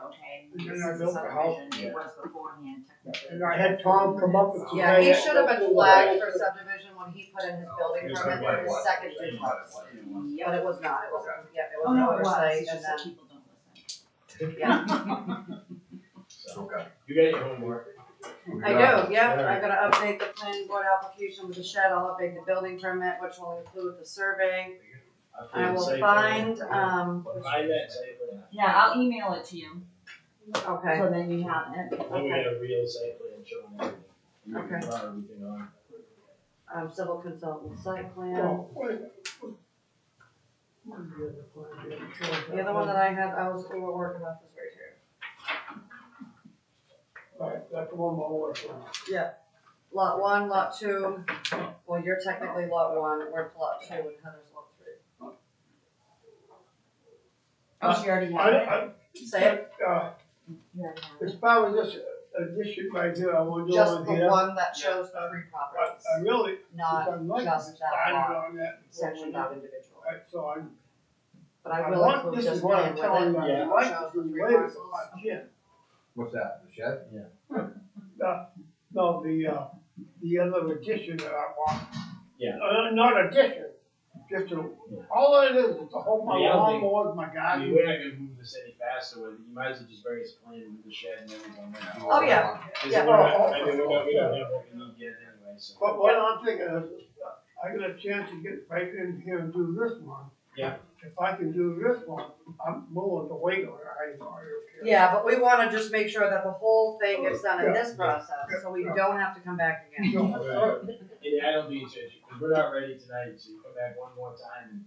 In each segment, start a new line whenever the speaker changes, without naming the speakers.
okay,
And
this
then
is
I built the house.
subdivision, it was beforehand technically.
And I had Tom come up with.
Yeah, he should have been flagged for subdivision when he put in his building permit for his second duplex. But it was not, it was, yeah, it
Oh,
was an
no, it was,
oversight
it's
and
just that
then,
people don't listen.
yeah.
Okay.
You got your homework.
I do, yeah, I'm gonna update the planning board application with the shed, I'll update the building permit, which will include the survey. I will find, um,
Find that site plan.
Yeah, I'll email it to you,
okay,
so then you have it.
Then we got a real site plan showing everything.
Okay.
Everything on.
um, civil consultant site plan.
Well, wait. Where's the other plan? The other plan.
The other one that I had, I was, we were working on this right here.
Right, that's the one my work on.
Lot one, lot two, well, you're technically lot one, we're at lot two, and Heather's lot three.
Oh, she already
I,
had it.
I,
Say it,
uh,
You already had it.
as far as this addition right here, I want to do
just the
over here.
one that shows the three
I,
properties,
I really, if
not
I might,
just that
started
lot.
on that.
section, not individual.
Right, so I'm
But I
I
will
want,
include
this is
just
what
one
I'm
with
telling you,
it,
I
it
like
shows
the
the three
way it's
parcels.
locked in.
What's that, the shed?
No, the, uh, the other addition that I want.
Yeah.
Uh, not addition, just a,
Yeah.
all it is, is to hold my
Yeah, I think-
lawnmowers, my
I mean,
garden.
we're not gonna move this any faster with it. You might as well just bring us a plan with the shed and everything.
Oh, yeah.
Cause
Yeah. Oh,
we're not, I mean, we're not, we don't have what we need yet anyway, so.
But what I'm thinking is, uh, I get a chance to get right in here and do this one.
Yeah.
If I can do this one, I'm willing to wait on it, I don't care.
Yeah, but we wanna just make sure that the whole thing gets done in
Yeah.
this process, so we
Yeah.
don't have to come back again.
No, uh,
Yeah, I don't think it's, cause we're not ready tonight, so you come back one more time and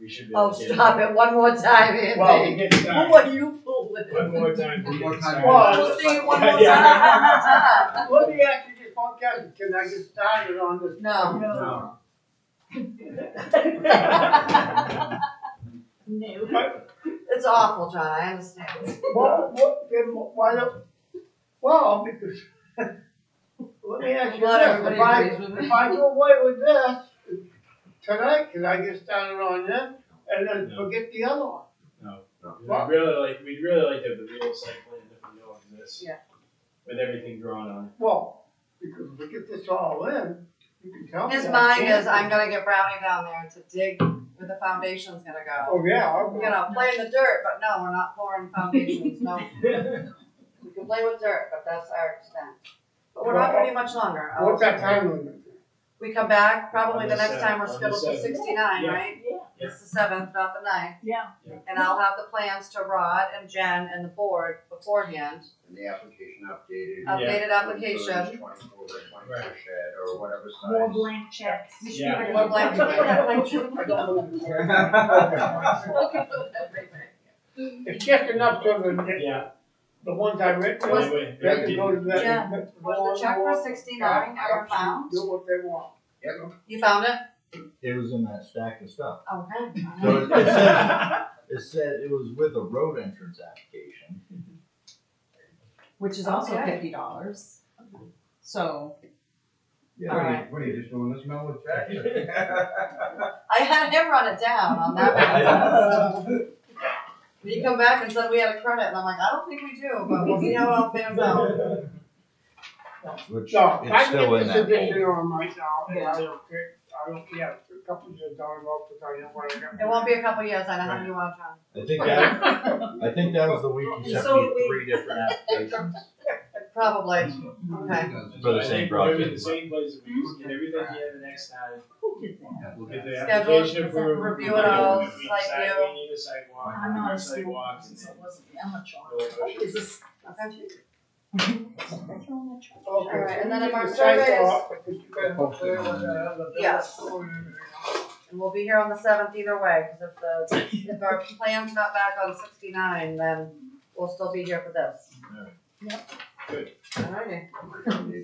we should be.
Oh,
able to get
stop it, one more time,
Well, we
Andy.
get started.
What are you fooling?
One more time. we
One more
get
time.
started.
Well,
We'll see you one
Yeah,
more
yeah.
time.
Let me ask you this one question, can I get started on this?
No.
No.
No.
It's awful, John, I understand.
Well, what, then why don't, well, because, let me ask
I'm
you
glad
this,
everybody
if I,
agrees with
if
me.
I do away with this, tonight, can I get started on this, and then
No.
forget the other one?
No.
Well-
We'd really like, we'd really like to have the real site plan if we know exists.
Yeah.
With everything drawn on it.
Well, because if we get this all in, you can tell me.
His
I
mind
can't.
is, I'm gonna get Brownie down there to dig where the foundation's gonna go.
Oh, yeah, I'm
We're
gonna,
gonna play in the dirt, but no, we're not pouring foundations, no. We can play with dirt, but that's our extent. But we're not gonna be much longer. I'll-
what's that time limit?
We come back, probably the
On the
next time we're
seventh, on the
scheduled for
seventh.
sixty-nine,
Yeah.
right?
Yeah.
It's the seventh, not the ninth,
Yeah.
and I'll have the plans to Rod and Jen and the board beforehand.
And the application updated.
Updated application.
Twenty-four by
Right.
twenty-four shed or whatever size.
More blank checks. We should
Yeah.
really-
More blank- yeah, blank
I don't know.
It
It's just enough so that
Yeah.
the ones I read,
Was-
they
Anyway,
can go to that.
Yeah. Was the check for sixty-nine ever found?
Do what they want.
Yep.
You found it?
It was in that stack of stuff.
Okay.
So it it said, it said it was with a road entrance application.
Which is also
Okay.
fifty dollars. So,
Yeah.
All right.
What are you, just doing this memo with Jack?
I had him run it down on that one. He come back and said we had a credit, and I'm like, I don't think we do, but we'll see how it all pans out.
Which
No, I
it's
get
still in
this
that
edition
hole.
on right now, and I
Yeah.
don't care, I don't, yeah, a couple of years down, I'll put on what I got.
It won't be a couple years, I know how many you want, John.
I think that, I think that was the week you sent
So
me
did we.
three different applications.
Probably, okay.
For the same project.
We'll be in the same place, if we just get everything here the next time,
who did that?
we'll get the
Schedule,
application approved.
review
we'll
it all,
go, if we
site
decide
view.
We need a sidewalk,
I'm not a
sidewalk,
student,
and
since
then
it wasn't, I'm a child.
we'll go
Is this?
Okay.
Okay,
Alright, and then
you
if our
can sign
survey is-
off, because you guys will clear with that other bill.
Yes. And we'll be here on the seventh either way, cause if the, if our plan's not back on sixty-nine, then we'll still be here for this.
Alright.
Yep.
Good.
Alrighty,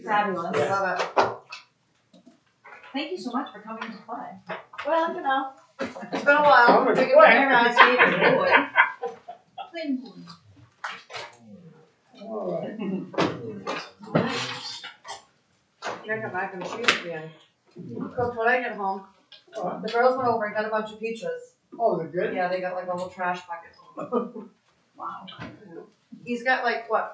Fabulous.
love it.
Thank you so much for coming to play. Well, you know.
It's been a while.
I'm gonna
We
quit.
can organize it.
Plain board.
Alright.
You're gonna mac and cheese again. Cooked when I get home. The girls went over and got a bunch of peaches.
Oh, they're good?
Yeah, they got like a whole trash bucket.
Wow.
he's got like, what,